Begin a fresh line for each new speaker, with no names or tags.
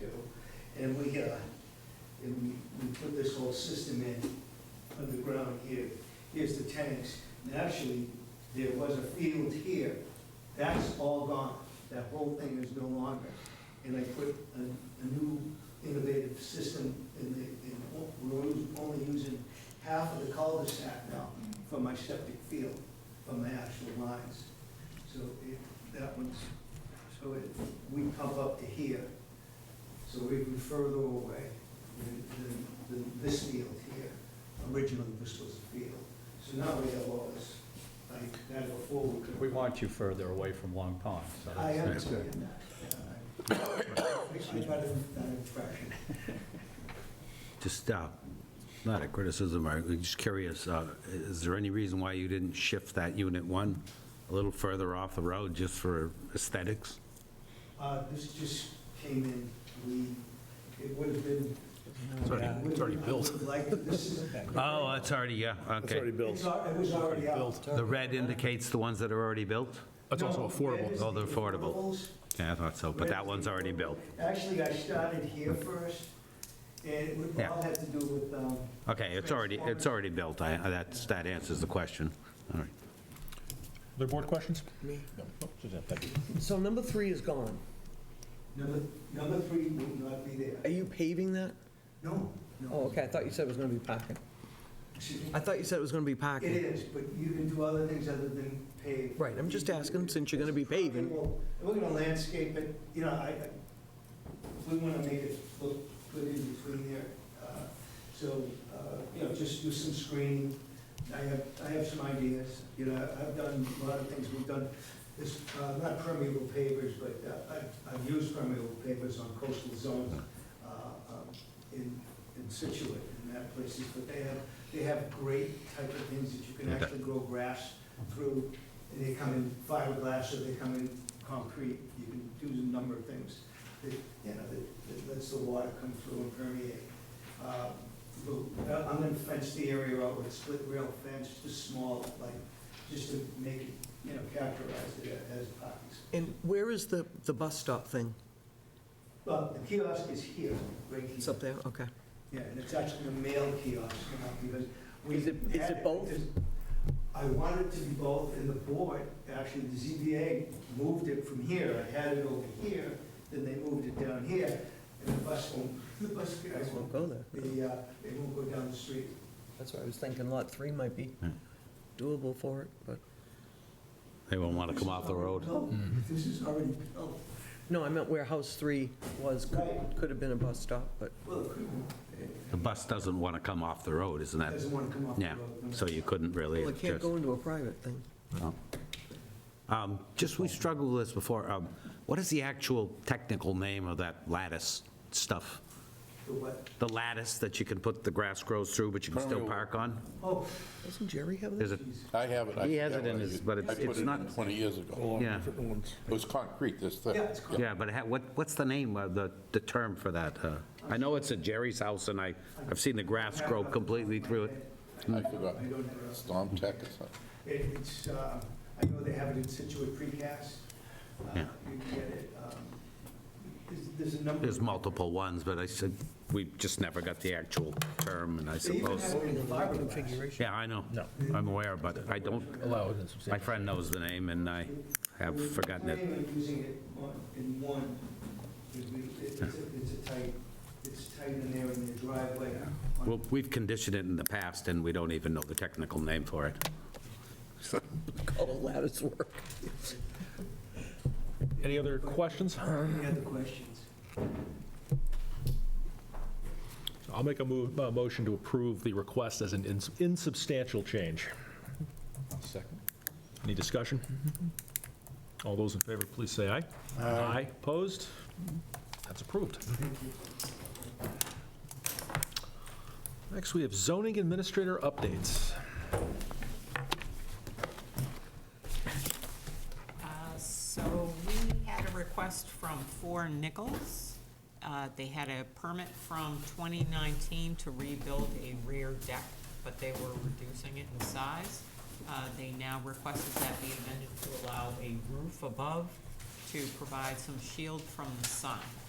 do. And we, uh, and we, we put this whole system in underground here. Here's the tanks, and actually, there was a field here. That's all gone. That whole thing is no longer. And I put a, a new innovative system in the, in, we're us- only using half of the cul-de-sac now for my septic field, for my actual lines. So it, that one's, so it, we pump up to here, so we'd be further away than, than, than this field here. Originally, this was a field. So now we have all this, like, that before we could.
We want you further away from Long Pond, so.
I
that's-
understand that. Makes me better than that impression.
Just, uh, not a criticism, I'm just curious, uh, is there any reason why you didn't shift that unit one a little further off the road just for aesthetics?
Uh, This just came in, we, it would have been.
It's already- it's already
I would
built.
Like, this is.
Oh, it's already, yeah, okay.
It's al- It was already out.
The red indicates the ones that are already built?
That's also
No,
affordable.
that is
Oh, they're
the
affordable.
affordables.
Yeah, I thought so, but that one's already built.
Actually, I started here first, and it would- all had to do with, um,
Okay, it's already, it's already built, I, that's, that answers the question. All right.
Other board questions? Me? No, Oh, Suzanne, thank you.
So number three is gone.
number, number three would not be there.
Are you paving that?
No, no.
Oh, okay, I thought you said it was gonna be parking.
Excuse me.
I thought you said it was gonna be
It
parking.
is, but you can do other things other than pave.
Right, I'm just asking, since you're gonna be paving.
Well, We're gonna landscape it, you know, I, I- we wanna make it look good in between there. uh, So, uh, you know, just do some screening. I have, I have some ideas, you know, I've done a lot of things, we've done, this, uh, not permeable pavers, but uh, I've, I've used permeable pavers on coastal zones uh, um, in, in Situate and that places, but they have, they have great type of things that you can
Okay.
actually grow grass through. And They come in fiberglass or they come in concrete, you can do a number of things that, you know, that- that lets the water come through and permeate. Uh, we'll- uh, I'm gonna fence the area out with split rail fence, just small, like, just to make it, you know, characterize it as parking space.
And where is the, the bus stop thing?
Well, the kiosk is here, right
It's
here.
up there, okay.
Yeah, and it's actually a mail kiosk, you know, because we.
Is it- is it
had-
both?
I wanted to be both, and the board, actually, the ZBA moved it from here. I had it over here, then they moved it down here, and the bus won't, the bus guys won't,
go there.
the, uh, they won't go down the street.
That's what I was thinking, lot three might be
Hmm.
doable for it, but,
They won't want to come off the road.
No, this is already built.
no, I meant where house three was, could,
Right.
could have been a bus stop, but,
Well, it couldn't,
The bus doesn't want to come off the road, isn't that?
doesn't want to come off the
Yeah,
road.
so you couldn't really.
well, it can't
just-
go into a private thing.
Um, Just, we struggled with this before. Um, What is the actual technical name of that lattice stuff?
The what?
The lattice that you can put, the grass grows through, but you can still park on?
Oh,
Doesn't Jerry have
Is
that?
it,
I have it. I
He has it
forget
in
what I
his-
used.
but it's-
I put
it's
it
not-
in 20 years ago.
yeah,
It was concrete, this thing.
yeah, it's called,
yeah, but ha- what, what's the name of the, the term for that? uh? I know it's at Jerry's house, and I, I've seen the grass grow completely through it.
I forgot.
I don't know.
Storm tech or something.
It- It's, uh, I know they have it in Situate Precast. Uh,
Yeah.
You can get it. um, there's- There's a number.
There's
of-
multiple ones, but I said, we just never got the actual term, and I
They even
suppose,
have it in fiberglass.
Configuration.
yeah, I know.
No.
I'm aware, but I don't,
Allowed and
my
substantial.
friend knows the name, and I have
We're
forgotten it.
planning on using it on- in one. It- we- It's a- it's a tight, it's tight in there in the driveway. on-
Well, we've conditioned it in the past, and we don't even know the technical name for it.
Call it lattice work.
Any other questions?
Any other questions?
I'll make a move, a motion to approve the request as an ins- insubstantial change. Second. Any discussion? All those in favor, please say aye. Aye. Opposed? That's approved. Next, we have zoning administrator updates.
Uh, So we had a request from Four Nichols. Uh, They had a permit from 2019 to rebuild a rear deck, but they were reducing it in size. Uh, They now requested that be amended to allow a roof above to provide some shield from the sun. Um,